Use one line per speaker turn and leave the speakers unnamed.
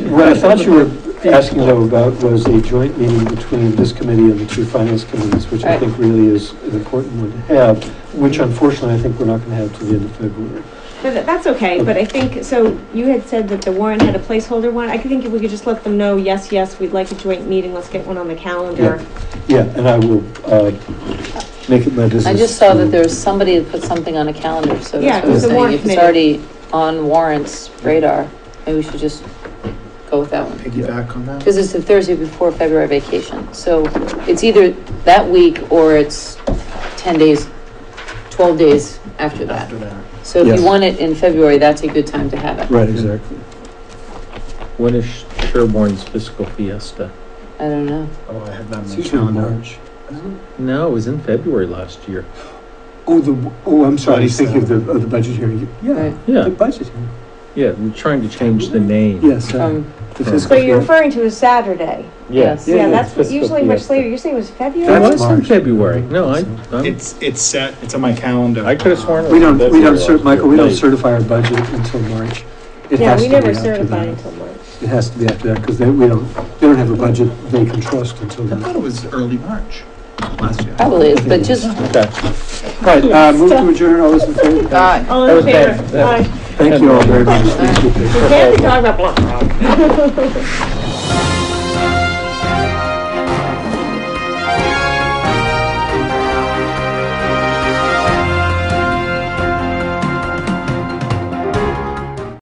What I thought you were asking though about was a joint meeting between this committee and the two finance committees, which I
Right.
think really is an important one to have, which unfortunately I think we're not going to have till the end of February.
But tha- that's okay, but I think, so you had said that the warrant had a placeholder one. I could think if we could just let them know, yes, yes, we'd like a joint meeting, let's get one on the calendar.
Yeah, and I will uh, make it my business.
I just saw
to-
that there was somebody that put something on a calendar, so
Yeah,
that's what
it
I'm
was the
saying.
warrant
If it's
committee.
already on warrants radar, maybe we should just go with that one.
Piggyback on that?
Because it's the Thursday before February vacation, so it's either that week or it's 10 days, 12 days after that.
After that.
So if
Yes.
you want it in February, that's a good time to have it.
Right, exactly.
When is Sherborne's fiscal fiesta?
I don't know.
Oh, I had that
It's
mentioned.
usually
March.
No, it was in February last year.
Oh, the, oh, I'm sorry, I was thinking of the, of the budget hearing.
Right.
Yeah, the
Yeah,
budget hearing,
yeah, we're trying to change the name.
yes. uh,
From,
the
So
fiscal
So you're
year.
referring to a Saturday.
yes.
Yeah,
Yeah,
yeah,
that's what-
fiscal
usually much
fiesta.
later. You're saying it was February?
It
That's
was in
March.
February. No, I, I'm-
It's, it's set, it's on my calendar.
I could've sworn it
We don't, we don't,
February
cer-
last
Michael, we
year.
don't
Right.
certify our budget until March. It
Yeah,
has
we
to be
never
after
certify
that.
until March.
It has to be after that, because they, we don't, they don't have a budget they can trust until
I
then.
thought it was early March last year.
probably is, but just,
okay.
Right, uh, move to adjourn, all those in favor?
aye.
All in
Okay.
favor? Aye.
Thank you all very much. Thank you.
We can't be talking about blah, blah.